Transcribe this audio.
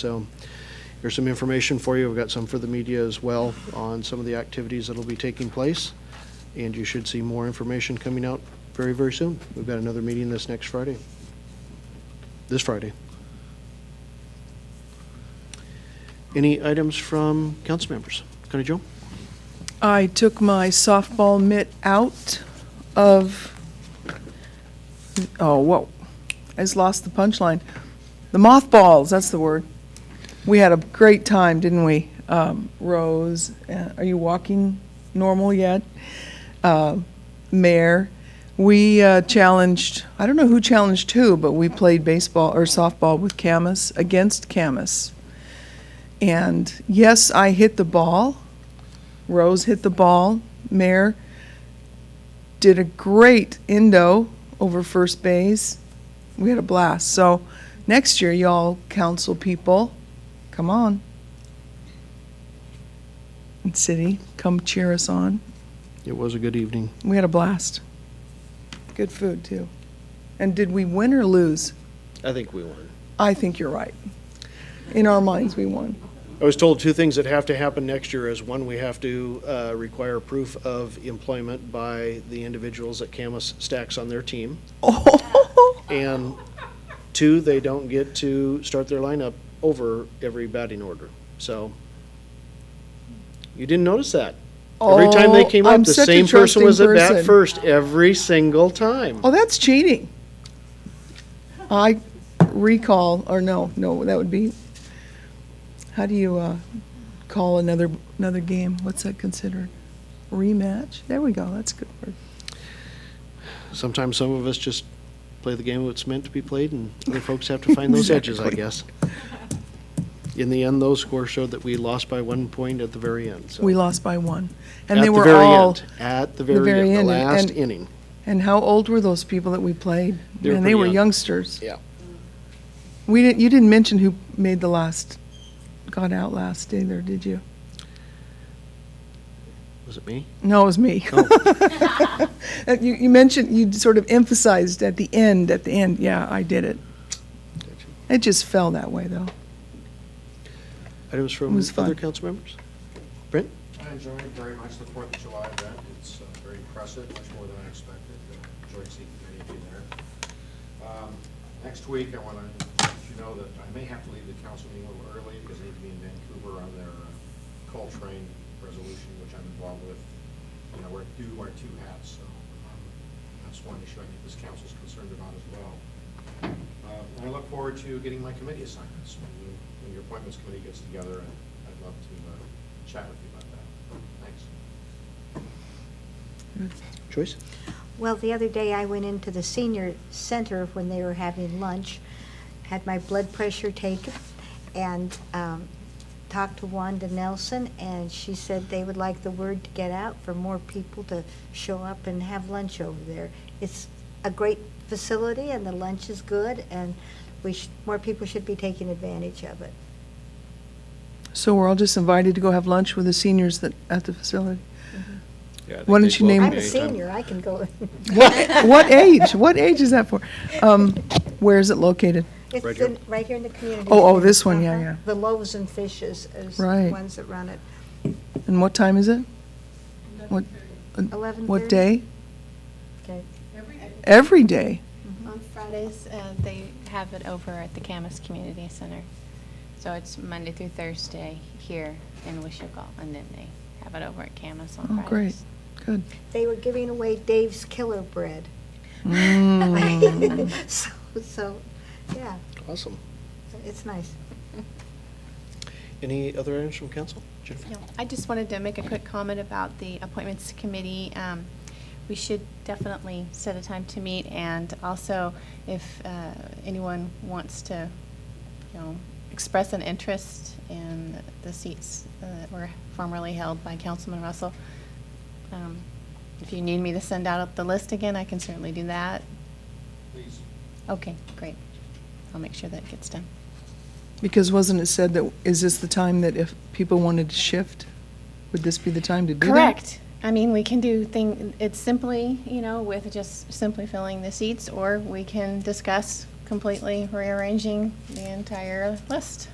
So here's some information for you. We've got some for the media as well on some of the activities that'll be taking place. And you should see more information coming out very, very soon. We've got another meeting this next Friday. This Friday. Any items from council members? Connie Jo? I took my softball mitt out of, oh, whoa, I just lost the punchline. The mothballs, that's the word. We had a great time, didn't we? Um, Rose, uh, are you walking normal yet? Uh, Mayor, we uh, challenged, I don't know who challenged who, but we played baseball or softball with Camus, against Camus. And yes, I hit the ball. Rose hit the ball. Mayor did a great endo over first base. We had a blast. So next year, y'all council people, come on. And city, come cheer us on. It was a good evening. We had a blast. Good food too. And did we win or lose? I think we won. I think you're right. In our minds, we won. I was told two things that have to happen next year is, one, we have to uh, require proof of employment by the individuals that Camus stacks on their team. Oh, And two, they don't get to start their lineup over every batting order. So you didn't notice that. Every time they came Oh, up, I'm the such a same person trusting was at bat person. first every single time. Oh, that's cheating. I recall, or no, no, that would be, how do you uh, call another, another game? What's that considered? Rematch? There we go, that's a good word. Sometimes some of us just play the game that's meant to be played, and other folks have to find those edges, I Exactly. guess. In the end, those scores showed that we lost by one point at the very end. So We lost by one. And at they the were very all, end, at the very, very end, end, the last and- inning. and how old were those people that we played? They were And they pretty were young. youngsters. Yeah. We didn't, you didn't mention who made the last, got out last either, did you? Was it me? No, it was me. Oh. Uh, You, you mentioned, you sort of emphasized at the end, at the end, yeah, I did it. It just fell that way, though. Items It from was fun. other council members? Brent? I enjoyed very much the Fourth of July event. It's uh, very impressive, much more than I expected. I Enjoyed seeing many of you there. Um, Next week, I want to let you know that I may have to leave the council meeting a little early because I need to be in Vancouver on their uh, coal train resolution, which I'm involved with. And I wear, do wear two hats, so um, that's one issue I think this council's concerned about as well. Uh, and I look forward to getting my committee assignments when you, when your appointments committee gets together, and I'd love to uh, chat with you about that. Thanks. Joyce? Well, the other day I went into the senior center when they were having lunch, had my blood pressure taken, and um, talked to Wanda Nelson, and she said they would like the word to get out for more people to show up and have lunch over there. It's a great facility, and the lunch is good, and we sh more people should be taking advantage of it. So we're all just invited to go have lunch with the seniors that, at the facility. Mm-hmm. Yeah, I think Why don't they'd you name- I'm welcome a you anytime. senior, I can go. What, what age? What age is that for? Um, where is it located? It's Right here? in- Right here in the community. Oh, oh, center. this one, yeah, Uh-huh. yeah. The Loaves and Fishes is the Right. ones that run it. And what time is it? What, what 11:30? day? Okay. Every day? On Fridays, uh, they have it over at the Camas Community Center. So it's Monday through Thursday here in Wishoka, and then they have it over at Camas on Oh, Fridays. great, good. They were giving away Dave's Killer Bread. Mm. So, so, yeah, Awesome. it's nice. Any other items from council? Jennifer? No, I just wanted to make a quick comment about the appointments to committee. Um, We should definitely set a time to meet, and also if uh, anyone wants to, you know, express an interest in the seats uh, that were formerly held by Councilman Russell, um, if you need me to send out the list again, I can certainly do that. Please. Okay, great. I'll make sure that gets done. Because wasn't it said that, is this the time that if people wanted to shift, would this be the time to do that? Correct. I mean, we can do thing, it's simply, you know, with just simply filling the seats, or we can discuss completely rearranging the entire list.